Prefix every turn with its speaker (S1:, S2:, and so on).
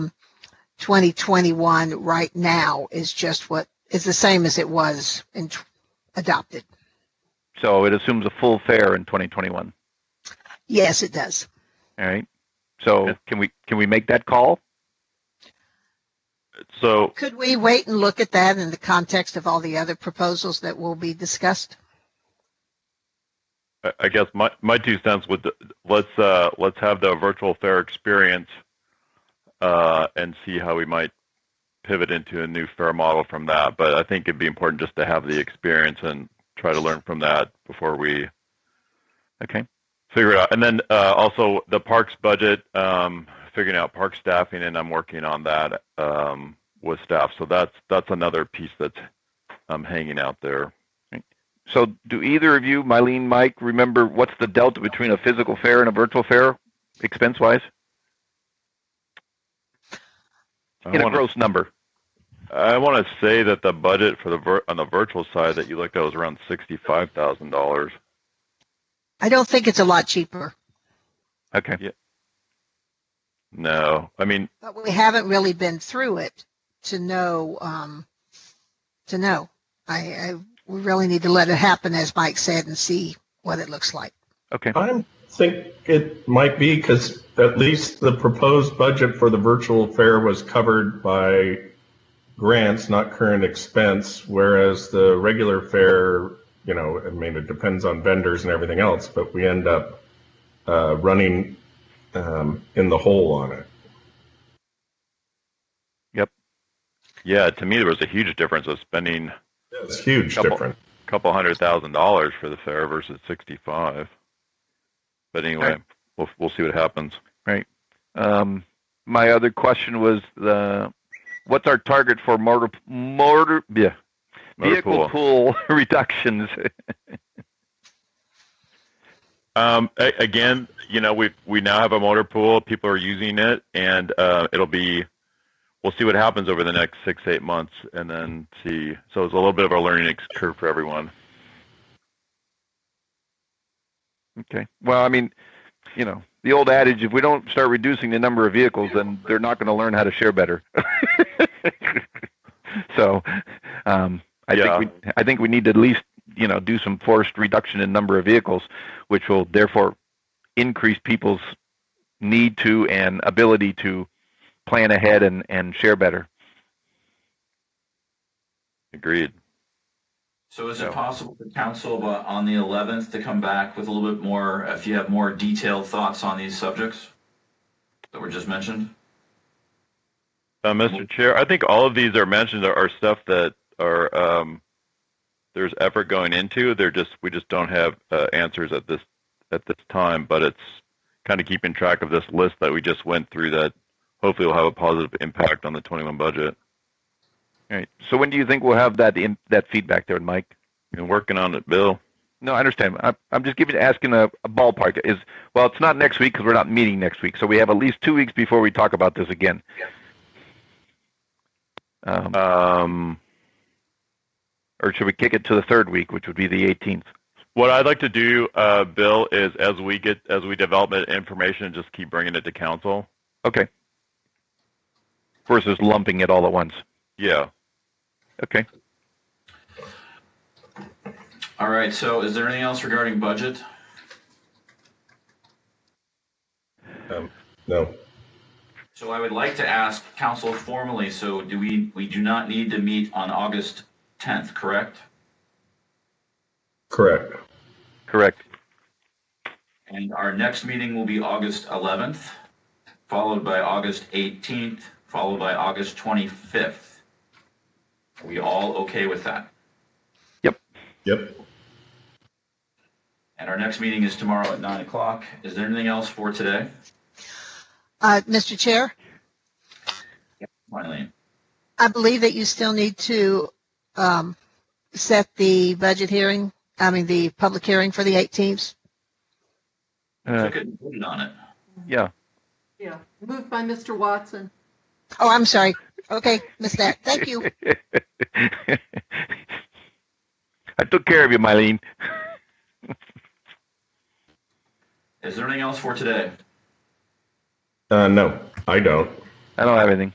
S1: 2021 right now is just what is the same as it was in t- adopted.
S2: So it assumes a full fare in 2021.
S1: Yes, it does.
S2: All right. So can we can we make that call?
S3: So
S1: Could we wait and look at that in the context of all the other proposals that will be discussed?
S3: I- I guess my, my two cents would let's uh, let's have the virtual fair experience uh, and see how we might pivot into a new fair model from that. But I think it'd be important just to have the experience and try to learn from that before we
S2: Okay.
S3: figure it out. And then uh, also the parks budget, um, figuring out park staffing, and I'm working on that um, with staff. So that's that's another piece that's um, hanging out there.
S2: So do either of you, Mylene, Mike, remember what's the delta between a physical fare and a virtual fare, expense wise,
S3: I
S2: in a
S3: wanna-
S2: gross number?
S3: I want to say that the budget for the vir- on the virtual side that you looked at was around sixty five thousand dollars.
S1: I don't think it's a lot cheaper,
S2: Okay.
S3: No, I mean
S1: but we haven't really been through it to know. Um, to know, I, I we really need to let it happen, as Mike said, and see what it looks like.
S2: Okay.
S4: I think it might be because at least the proposed budget for the virtual fair was covered by grants, not current expense, whereas the regular fair, you know, I mean, it depends on vendors and everything else, but we end up uh, running um, in the hole on it.
S3: Yeah, to me, there was a huge difference of spending a
S4: It's huge
S3: Couple.
S4: difference.
S3: couple hundred thousand dollars for the fair versus sixty-five. But anyway,
S2: Right.
S3: we'll we'll see what happens.
S2: Um, my other question was the what's our target for motor motor yeah,
S3: Motor
S2: vehicle
S3: pool.
S2: pool reductions?
S3: Um, a- again, you know, we we now have a motor pool. People are using it, and uh, it'll be. We'll see what happens over the next six eight months, and then see. So it's a little bit of a learning ex- curve for everyone.
S2: Okay. Well, I mean, you know, the old adage: if we don't start reducing the number of vehicles, then they're not going to learn how to share better. so, um, I
S3: Yeah.
S2: think we, I think we need to at least you know do some forced reduction in number of vehicles, which will therefore increase people's need to and ability to plan ahead and and share better.
S3: Agreed.
S5: So is
S3: No.
S5: it possible for council uh, on the 11th to come back with a little bit more, if you have more detailed thoughts on these subjects that were just mentioned?
S3: Uh, Mr. Chair, I think all of these are mentioned are, are stuff that are um, there's effort going into. They're just we just don't have uh, answers at this at this time, but it's kind of keeping track of this list that we just went through that hopefully will have a positive impact on the 21 budget.
S2: All right. So when do you think we'll have that in, that feedback there, Mike?
S3: Been working on it, Bill.
S2: No, I understand. I'm, I'm just giving asking a, a ballpark. Is well, it's not next week because we're not meeting next week, so we have at least two weeks before we talk about this again. Um,
S3: Um,
S2: or should we kick it to the third week, which would be the 18th?
S3: What I'd like to do, uh, Bill, is as we get as we develop that information, just keep bringing it to council.
S2: Okay. Versus lumping it all at once.
S3: Yeah,
S2: Okay.
S5: All right, so is there anything else regarding budget?
S4: Um, No.
S5: So I would like to ask council formally, so do we, we do not need to meet on August 10th, correct?
S4: Correct.
S2: Correct.
S5: And our next meeting will be August 11th, followed by August 18th, followed by August 25th. Are we all okay with that?
S4: Yep.
S5: And our next meeting is tomorrow at 9 o'clock. Is there anything else for today?
S1: Uh, Mr. Chair,
S5: Finally,
S1: I believe that you still need to um, set the budget hearing. I mean, the public hearing for the 18th.
S2: Uh,
S5: took it and voted on it.
S2: yeah.
S6: Yeah, moved by Mr. Watson.
S1: Oh, I'm sorry. Okay, missed that. Thank you.
S2: I took care of you, Mylene.
S5: Is there anything else for today?
S4: Uh, no, I don't.
S2: I don't have anything.